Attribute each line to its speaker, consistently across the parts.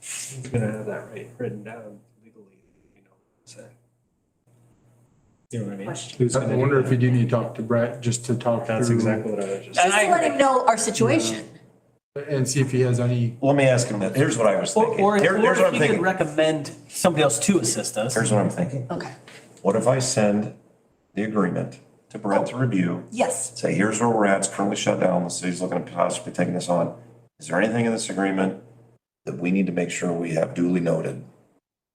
Speaker 1: He's gonna have that right written down legally, you know, so. You know what I mean?
Speaker 2: Question.
Speaker 1: Who's gonna
Speaker 3: I
Speaker 1: do
Speaker 3: wonder
Speaker 1: that?
Speaker 3: if you do need to talk to Brett, just to talk
Speaker 1: That's
Speaker 3: through
Speaker 1: exactly what I was just.
Speaker 2: Just to
Speaker 4: I
Speaker 2: let
Speaker 4: agree.
Speaker 2: him know our situation.
Speaker 5: Mm-hmm.
Speaker 3: and see if he has any,
Speaker 5: Let me ask him, that. here's what I was
Speaker 4: Or,
Speaker 5: thinking.
Speaker 4: or
Speaker 5: Here-
Speaker 4: or
Speaker 5: Here's what
Speaker 4: if
Speaker 5: I'm
Speaker 4: you could
Speaker 5: thinking.
Speaker 4: recommend somebody else to assist us.
Speaker 5: Here's what I'm thinking.
Speaker 2: Okay.
Speaker 5: What if I send the agreement to Brent
Speaker 4: Oh.
Speaker 5: to review?
Speaker 2: Yes.
Speaker 5: Say, here's where we're at, it's currently shut down, the city's looking at possibly taking this on. Is there anything in this agreement that we need to make sure we have duly noted?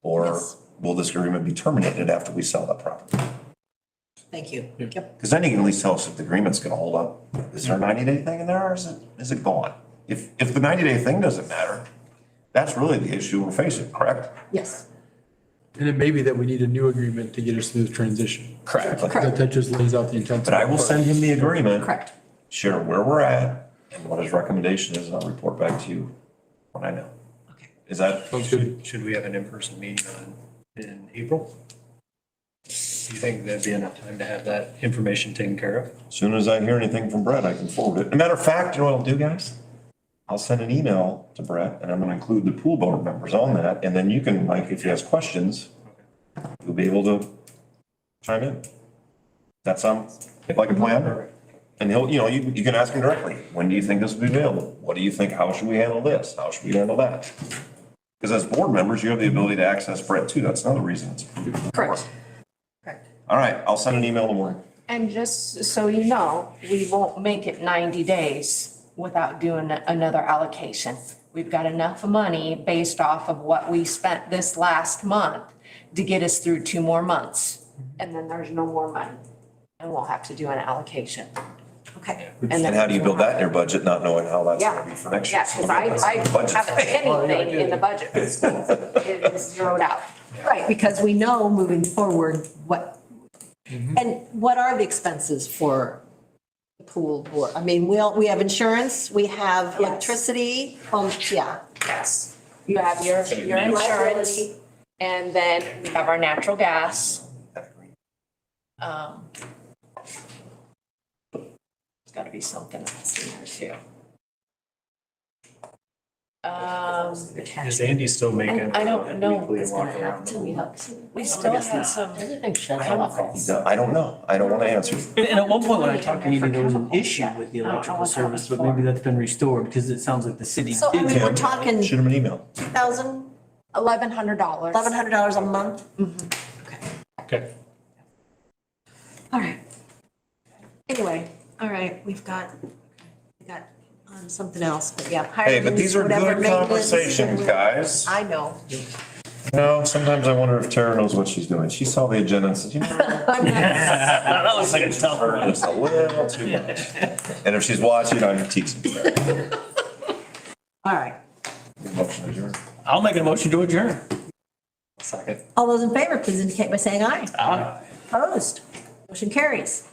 Speaker 5: Or
Speaker 2: Yes.
Speaker 5: will this agreement be terminated after we sell that property?
Speaker 2: Thank you. Yep.
Speaker 5: Because then you can at least tell us if the agreement's gonna hold up. Is there a ninety day thing in there or is it, is it gone? If, if the ninety day thing doesn't matter, that's really the issue we're facing, correct?
Speaker 2: Yes.
Speaker 3: and it may be that we need a new agreement to get us through the transition.
Speaker 5: Correct.
Speaker 3: That, that just lays out the intent.
Speaker 5: But I will send him the agreement.
Speaker 2: Correct.
Speaker 5: Share where we're at and what his recommendation is, and I'll report back to you when I know.
Speaker 2: Okay.
Speaker 5: Is that,
Speaker 3: Sounds good.
Speaker 1: Should, should we have an in-person meeting on, in April? Do you think that'd be enough time to have that information taken care of?
Speaker 5: as soon as I hear anything from Brett, I can forward it. As a matter of fact, you know what I'll do, guys? I'll send an email to Brett, and I'm gonna include the pool board members on that, and then you can, like, if he has questions, you'll be able to chime in. That sounds like a plan? And he'll, you know, you, you can ask him directly, when do you think this will be available? What do you think, how should we handle this? How should we handle that? Because as board members, you have the ability to access Brett too, that's another reason. it's-
Speaker 2: Correct. Correct.
Speaker 5: All right, I'll send an email in the morning.
Speaker 6: And just so you know, we won't make it ninety days without doing another allocation. We've got enough money based off of what we spent this last month to get us through two more months. And then there's no more money and we'll have to do an allocation.
Speaker 2: Okay.
Speaker 5: And how do you build that in your budget, not knowing how that's gonna be for next year?
Speaker 6: Yeah, because I, I
Speaker 5: Budget.
Speaker 6: haven't anything in the budget. It is zeroed out.
Speaker 2: Right, because we know moving forward what, and what are the expenses for the pool board? I mean, we all, we have insurance, we have electricity, um, yeah.
Speaker 6: Yes. You have your, your insurance and then we have our natural gas. Um, There's gotta be something else in there too. Um,
Speaker 1: Is Andy still making?
Speaker 6: I- I don't
Speaker 1: that
Speaker 6: know
Speaker 1: weekly
Speaker 6: what's
Speaker 1: walk
Speaker 6: gonna
Speaker 1: around?
Speaker 6: we still had some chemicals.
Speaker 5: No, I don't know. I don't wanna answer.
Speaker 4: And and at one point when I talked to Andy, there was an issue with the
Speaker 6: I don't know
Speaker 4: electrical
Speaker 6: what that
Speaker 4: service,
Speaker 6: was
Speaker 4: but maybe
Speaker 6: for.
Speaker 4: that's been restored because it sounds like the city
Speaker 2: So, I
Speaker 4: did
Speaker 2: mean,
Speaker 4: that.
Speaker 2: we're talking
Speaker 5: Shoot him an email.
Speaker 2: thousand,
Speaker 6: Eleven hundred dollars.
Speaker 2: eleven hundred dollars a month? Okay.
Speaker 1: Okay.
Speaker 2: All right. Anyway, all right, we've got, we got um, something else, but yeah.
Speaker 5: Hey, but
Speaker 2: hirings,
Speaker 5: these are
Speaker 2: whatever,
Speaker 5: good
Speaker 2: maintenance,
Speaker 5: conversations, guys.
Speaker 2: I know.
Speaker 5: You know, sometimes I wonder if Tara knows what she's doing. She saw the agenda and said, you know.
Speaker 2: I'm not-
Speaker 4: That looks like a tough one.
Speaker 5: It's a little too much. And if she's watching, I'm teasing.
Speaker 2: All right.
Speaker 5: Motion adjourned.
Speaker 4: I'll make a motion to adjourn.
Speaker 1: Second.
Speaker 2: All those in favor, please indicate by saying aye. Opposed? Motion carries.